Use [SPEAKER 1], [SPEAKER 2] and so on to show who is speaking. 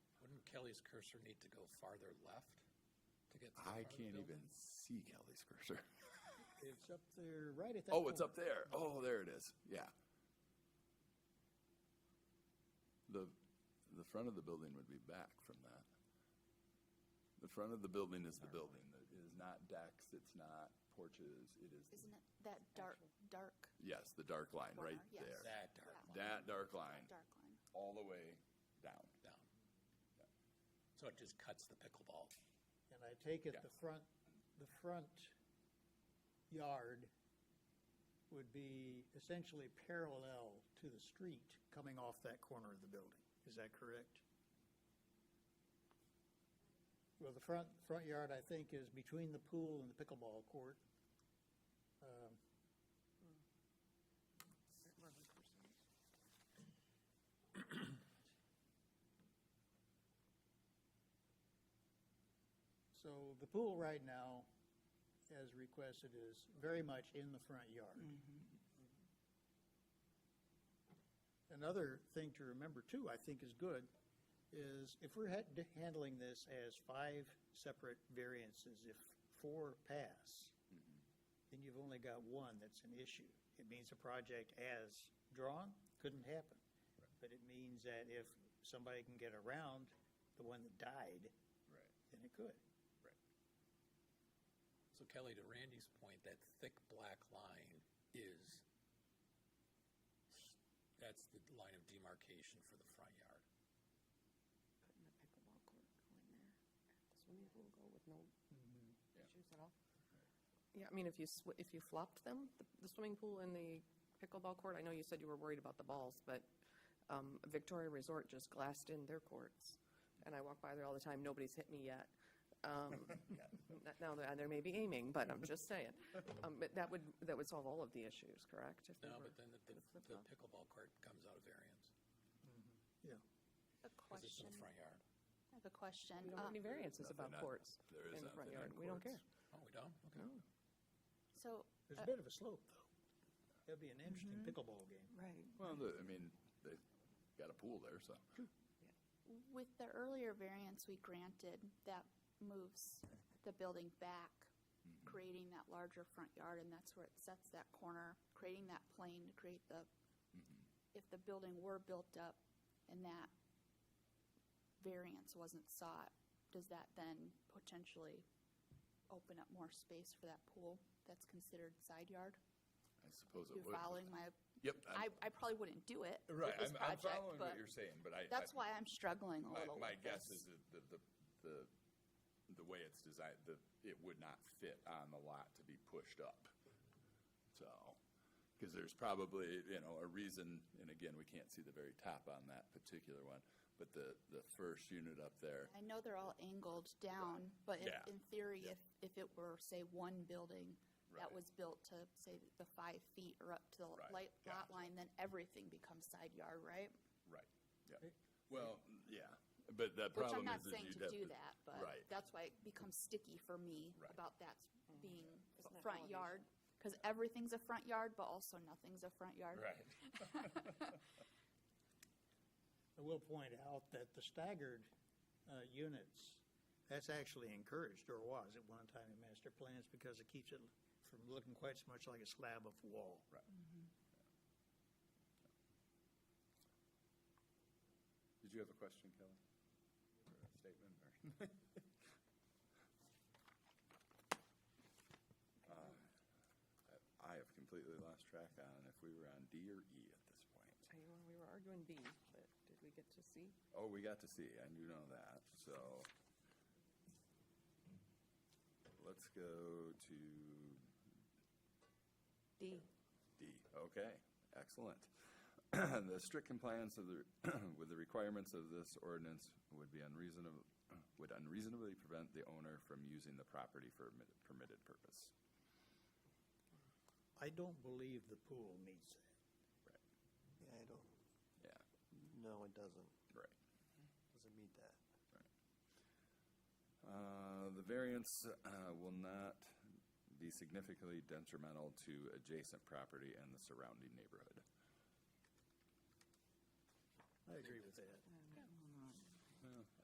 [SPEAKER 1] Kelly's cursor need to go farther left to get? to the
[SPEAKER 2] I
[SPEAKER 1] front of the
[SPEAKER 2] can't
[SPEAKER 1] building?
[SPEAKER 2] even see Kelly's cursor.
[SPEAKER 3] It's up there, right at that.
[SPEAKER 2] Oh, it's up
[SPEAKER 3] corner.
[SPEAKER 2] there. Oh, there it is. Yeah. The, the front of the building would be back from that. The front of the building is the building. It is not decks, it's not porches, it is,
[SPEAKER 4] Isn't it that dark, dark,
[SPEAKER 2] yes, the dark line right
[SPEAKER 4] Corner, yes.
[SPEAKER 2] there.
[SPEAKER 1] That dark
[SPEAKER 4] Yeah.
[SPEAKER 1] line
[SPEAKER 2] That dark line,
[SPEAKER 4] dark line?
[SPEAKER 2] all the way down.
[SPEAKER 1] down. So it just cuts the pickleball.
[SPEAKER 3] And I take it
[SPEAKER 2] Yeah.
[SPEAKER 3] the front, the front yard would be essentially parallel to the street coming off that corner of the building. Is that correct? Well, the front, front yard, I think, is between the pool and the pickleball court. Um, So the pool right now, as requested, is very much in the front yard. Another thing to remember too, I think is good, is if we're had- handling this as five separate variances, if four pass,
[SPEAKER 4] Mm-hmm.
[SPEAKER 3] then you've only got one that's an issue. It means the project as drawn couldn't happen. But it means that if somebody can get around the one that died,
[SPEAKER 2] Right.
[SPEAKER 3] then it could.
[SPEAKER 1] So Kelly, to Randy's point, that thick black line is, that's the line of demarcation for the front yard.
[SPEAKER 5] Putting the pickleball court going there, the swimming pool go with no
[SPEAKER 2] Mm-hmm. Yeah.
[SPEAKER 5] issues at all. Yeah, I mean, if you, sw- if you flopped them, the- the swimming pool and the pickleball court, I know you said you were worried about the balls, but um, Victoria Resort just glassed in their courts, and I walk by there all the time, nobody's hit me yet. Um, n- Now, there there may be aiming, but I'm just saying. Um, But that would, that would solve all of the issues, correct? If they
[SPEAKER 1] No, but
[SPEAKER 5] were-
[SPEAKER 1] then the, the the pickleball court comes out of variance,
[SPEAKER 3] Yeah.
[SPEAKER 1] because
[SPEAKER 4] A
[SPEAKER 1] it's
[SPEAKER 4] question,
[SPEAKER 1] in the front yard.
[SPEAKER 4] I have a question.
[SPEAKER 5] We don't have
[SPEAKER 4] Uh,
[SPEAKER 5] any variances about
[SPEAKER 2] Nothing on-
[SPEAKER 5] courts
[SPEAKER 2] there is
[SPEAKER 5] in the front
[SPEAKER 2] nothing on
[SPEAKER 5] yard, we don't care.
[SPEAKER 2] courts.
[SPEAKER 1] Oh, we don't? Okay.
[SPEAKER 4] So,
[SPEAKER 3] There's a bit of a slope, though. That'd be an interesting pickleball game.
[SPEAKER 5] Right.
[SPEAKER 2] Well, the- I mean, they got a pool there, so.
[SPEAKER 4] with the earlier variance we granted, that moves the building back, creating that larger front yard, and that's where it sets that corner, creating that plane to create the,
[SPEAKER 2] Mm-hmm.
[SPEAKER 4] if the building were built up and that variance wasn't sought, does that then potentially open up more space for that pool that's considered side yard?
[SPEAKER 2] I suppose it
[SPEAKER 4] You're
[SPEAKER 2] would.
[SPEAKER 4] following my,
[SPEAKER 2] Yep.
[SPEAKER 4] I,
[SPEAKER 2] I'm-
[SPEAKER 4] I probably wouldn't do it. with
[SPEAKER 2] Right,
[SPEAKER 4] this
[SPEAKER 2] I'm, I'm
[SPEAKER 4] project,
[SPEAKER 2] following
[SPEAKER 4] but
[SPEAKER 2] what you're saying, but I.
[SPEAKER 4] That's
[SPEAKER 2] I-
[SPEAKER 4] why I'm struggling a
[SPEAKER 2] My,
[SPEAKER 4] little.
[SPEAKER 2] my
[SPEAKER 4] with
[SPEAKER 2] guess
[SPEAKER 4] this.
[SPEAKER 2] is that the, the, the, the way it's designed, the, it would not fit on the lot to be pushed up. So, because there's probably, you know, a reason, and again, we can't see the very top on that particular one, but the, the first unit up there,
[SPEAKER 4] I know they're all angled down, but if,
[SPEAKER 2] Yeah.
[SPEAKER 4] in theory, if, if it were, say, one building that
[SPEAKER 2] Right.
[SPEAKER 4] was built to, say, the five feet or up to the
[SPEAKER 2] Right,
[SPEAKER 4] light,
[SPEAKER 2] yeah.
[SPEAKER 4] lot line, then everything becomes side yard, right?
[SPEAKER 2] right, yeah. Well, yeah, but the problem is.
[SPEAKER 4] Which I'm not
[SPEAKER 2] is
[SPEAKER 4] saying
[SPEAKER 2] you'd
[SPEAKER 4] to
[SPEAKER 2] have
[SPEAKER 4] do that, but
[SPEAKER 2] Right.
[SPEAKER 4] that's why it becomes sticky for me
[SPEAKER 2] Right.
[SPEAKER 4] about that being
[SPEAKER 5] Isn't that
[SPEAKER 4] front yard.
[SPEAKER 5] elevation?
[SPEAKER 4] Cause everything's a front yard, but also nothing's a front yard.
[SPEAKER 2] Right,
[SPEAKER 3] I will point out that the staggered uh, units, that's actually encouraged, or was at one time in master plans, because it keeps it from looking quite so much like a slab of wall.
[SPEAKER 2] right. Did you have a question, Kelly? Or a statement, or? Uh, I have completely lost track on if we were on D or E at this point.
[SPEAKER 5] I know We were arguing B, but did we get to C?
[SPEAKER 2] Oh, we got to see, I do know that, so. Let's go to
[SPEAKER 5] D.
[SPEAKER 2] D, okay, excellent. The strict compliance of the, with the requirements of this ordinance would be unreasonable, would unreasonably prevent the owner from using the property for a permitted- permitted purpose.
[SPEAKER 3] I don't believe the pool meets that.
[SPEAKER 6] Yeah, I don't,
[SPEAKER 2] Yeah,
[SPEAKER 6] no, it doesn't,
[SPEAKER 2] right.
[SPEAKER 6] doesn't meet that.
[SPEAKER 2] Uh, The variance uh, will not be significantly detrimental to adjacent property and the surrounding neighborhood.
[SPEAKER 3] I agree with that.